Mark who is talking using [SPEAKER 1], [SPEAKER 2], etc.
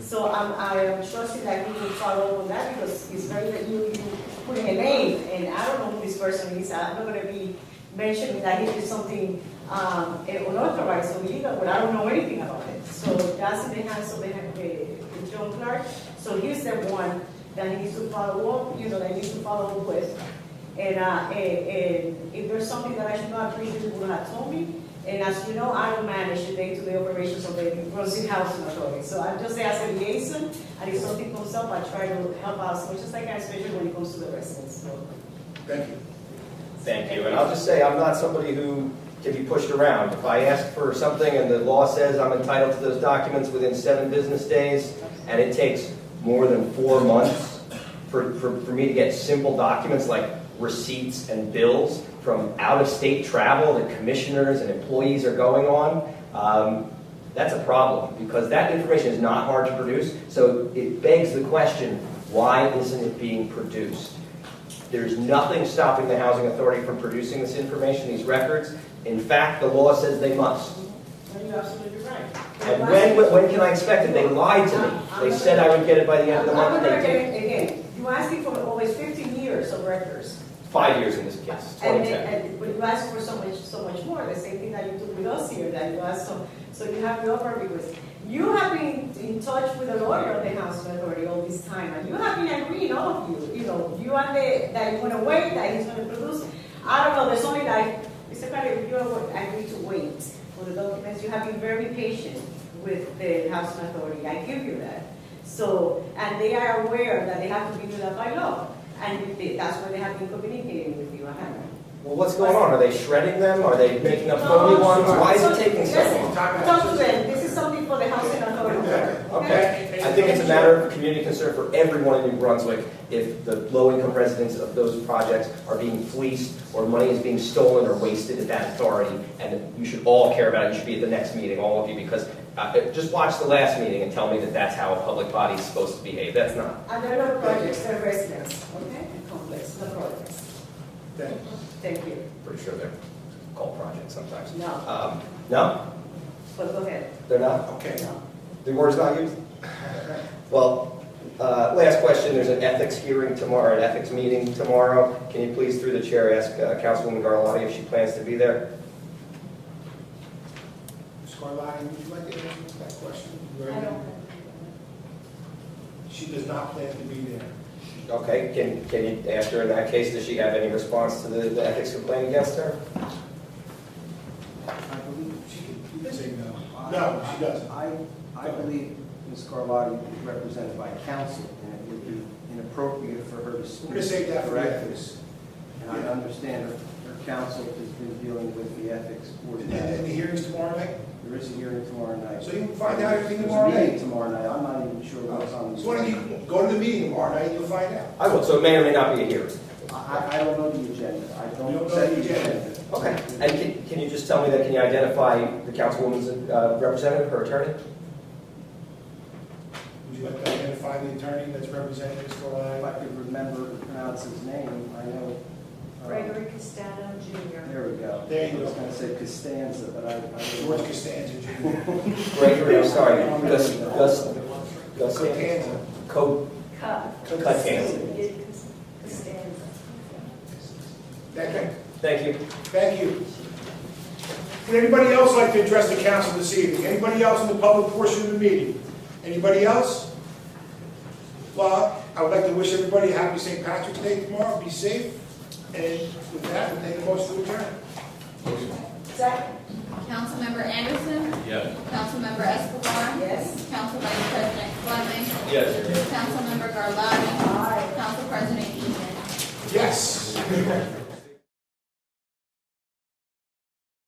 [SPEAKER 1] So I'm, I am trusting that you will follow up on that because it's very, that you, you putting a name and I don't know who this person is. I'm not gonna be mentioning that he did something, um, eh, unauthorized or illegal, but I don't know anything about it. So that's in the hands of the, the John Clark. So he's the one that needs to follow up, you know, that needs to follow up with. And, uh, and, and if there's something that I should not agree with, you would have told me. And as you know, I don't manage the day-to-day operations of the Brunswick Housing Authority. So I'm just there as a liaison, and if something comes up, I try to help out as much as I can, especially when it comes to the residents, so.
[SPEAKER 2] Thank you.
[SPEAKER 3] Thank you,
[SPEAKER 4] And
[SPEAKER 3] and
[SPEAKER 4] I'll
[SPEAKER 3] I'll
[SPEAKER 4] just say, I'm not somebody who can be pushed around. If I ask for something and the law says I'm entitled to those documents within seven business days, and it takes more than four months for, for, for me to get simple documents like receipts and bills from out-of-state travel that commissioners and employees are going on, um, that's a problem, because that information is not hard to produce, so it begs the question, why isn't it being produced? There's nothing stopping the housing authority from producing this information, these records. In fact, the law says they must.
[SPEAKER 1] And you're absolutely right.
[SPEAKER 4] And when, when can I expect it? They lied to me. They said I would get it by the end of the
[SPEAKER 1] I'm
[SPEAKER 4] month,
[SPEAKER 1] gonna
[SPEAKER 4] they did.
[SPEAKER 1] again, again, you asking for always fifteen years of records.
[SPEAKER 4] Five years in this case,
[SPEAKER 1] And,
[SPEAKER 4] 2010.
[SPEAKER 1] and, but you ask for so much, so much more, the same thing that you do with us here, that you ask so, so you have your purpose. You have been in touch with the lawyer of the housing authority all this time, and you have been agreeing, all of you, you know, you and the, that you're gonna wait, that he's gonna produce. I don't know, there's only like, Mr. Carter, you are, I need to wait for the documents, you have been very patient with the housing authority, I give you that. So, and they are aware that they have to be do that by law, and they- that's why they have been communicating with you, I have.
[SPEAKER 4] Well, what's going on? Are they shredding them? Are they making up
[SPEAKER 1] Oh,
[SPEAKER 4] phony ones? Why is it taking so long?
[SPEAKER 1] Talk to them, this is something for the housing authority.
[SPEAKER 4] Okay, I think it's a matter of community concern for everyone in New Brunswick if the low-income residents of those projects are being fleeced or money is being stolen or wasted at that authority, and you should all care about it, you should be at the next meeting, all of you, because, uh, just watch the last meeting and tell me that that's how a public body is supposed to behave, that's not.
[SPEAKER 1] And they're not projects, they're residents, okay, and complex, not projects.
[SPEAKER 2] Thank you.
[SPEAKER 1] Thank you,
[SPEAKER 4] Pretty sure they're called projects sometimes.
[SPEAKER 1] no,
[SPEAKER 4] Um, no,
[SPEAKER 1] but go ahead,
[SPEAKER 4] they're not?
[SPEAKER 2] Okay,
[SPEAKER 1] no.
[SPEAKER 4] The word's not used? Well, uh, last question, there's an ethics hearing tomorrow, an ethics meeting tomorrow. Can you please, through the chair, ask uh, Councilwoman Garlotti if she plans to be there?
[SPEAKER 2] Ms. Carlotti, would you like to answer that question?
[SPEAKER 1] I don't.
[SPEAKER 2] She does not plan to be there.
[SPEAKER 4] Okay, can, can you ask her in that case, does she have any response to the the ethics complaint against her?
[SPEAKER 5] I believe she could, you could say no. I-
[SPEAKER 2] No, she doesn't.
[SPEAKER 5] I, I believe Ms. Carlotti is represented by counsel, and it would be inappropriate for her to speak.
[SPEAKER 2] We're gonna save that for
[SPEAKER 5] directly.
[SPEAKER 2] ethics.
[SPEAKER 5] And I understand her, her counsel has been dealing with the ethics board.
[SPEAKER 2] And then the hearing's tomorrow night?
[SPEAKER 5] There is a hearing tomorrow night.
[SPEAKER 2] So you can find out everything
[SPEAKER 5] There's a
[SPEAKER 2] tomorrow night.
[SPEAKER 5] meeting tomorrow night, I'm not even sure what's on. the-
[SPEAKER 2] So why don't you go to the meeting tomorrow night, you'll find out.
[SPEAKER 4] I will, so it may or may not be a hearing.
[SPEAKER 5] I, I- I don't know the agenda, I
[SPEAKER 2] You
[SPEAKER 5] don't
[SPEAKER 2] don't
[SPEAKER 5] set
[SPEAKER 2] know
[SPEAKER 5] the
[SPEAKER 2] the agenda.
[SPEAKER 5] agenda.
[SPEAKER 4] Okay, and can, can you just tell me that, can you identify the councilwoman's uh, representative, her attorney?
[SPEAKER 2] Would you like to identify the attorney that's representing Ms.
[SPEAKER 5] If I
[SPEAKER 2] Carlotti?
[SPEAKER 5] could remember to pronounce his name, I know. uh,
[SPEAKER 6] Gregory Castano Jr.
[SPEAKER 5] There we go.
[SPEAKER 2] There you
[SPEAKER 5] I was
[SPEAKER 2] go.
[SPEAKER 5] gonna say Costanza, but I. I-
[SPEAKER 2] George Costanza Jr.
[SPEAKER 4] Gregory, I'm sorry, Gus, Gus, Gus.
[SPEAKER 2] Costanza.
[SPEAKER 4] Co,
[SPEAKER 6] Cut.
[SPEAKER 4] Costanza.
[SPEAKER 6] Costanza.
[SPEAKER 2] Thank you.
[SPEAKER 4] thank you.
[SPEAKER 2] Thank you. Would anybody else like to address the council this evening? Anybody else in the public portion of the meeting? Anybody else? Well, I would like to wish everybody a happy St. Patrick's Day tomorrow, be safe, and with that, we'll take a motion to adjourn.
[SPEAKER 1] Second,
[SPEAKER 7] Councilmember Anderson.
[SPEAKER 3] Yes.
[SPEAKER 7] Councilmember Escobar.
[SPEAKER 1] yes?
[SPEAKER 7] Council Vice President Fleming.
[SPEAKER 3] Yes.
[SPEAKER 7] Councilmember Garlotti. Council President Eastman.
[SPEAKER 2] Yes.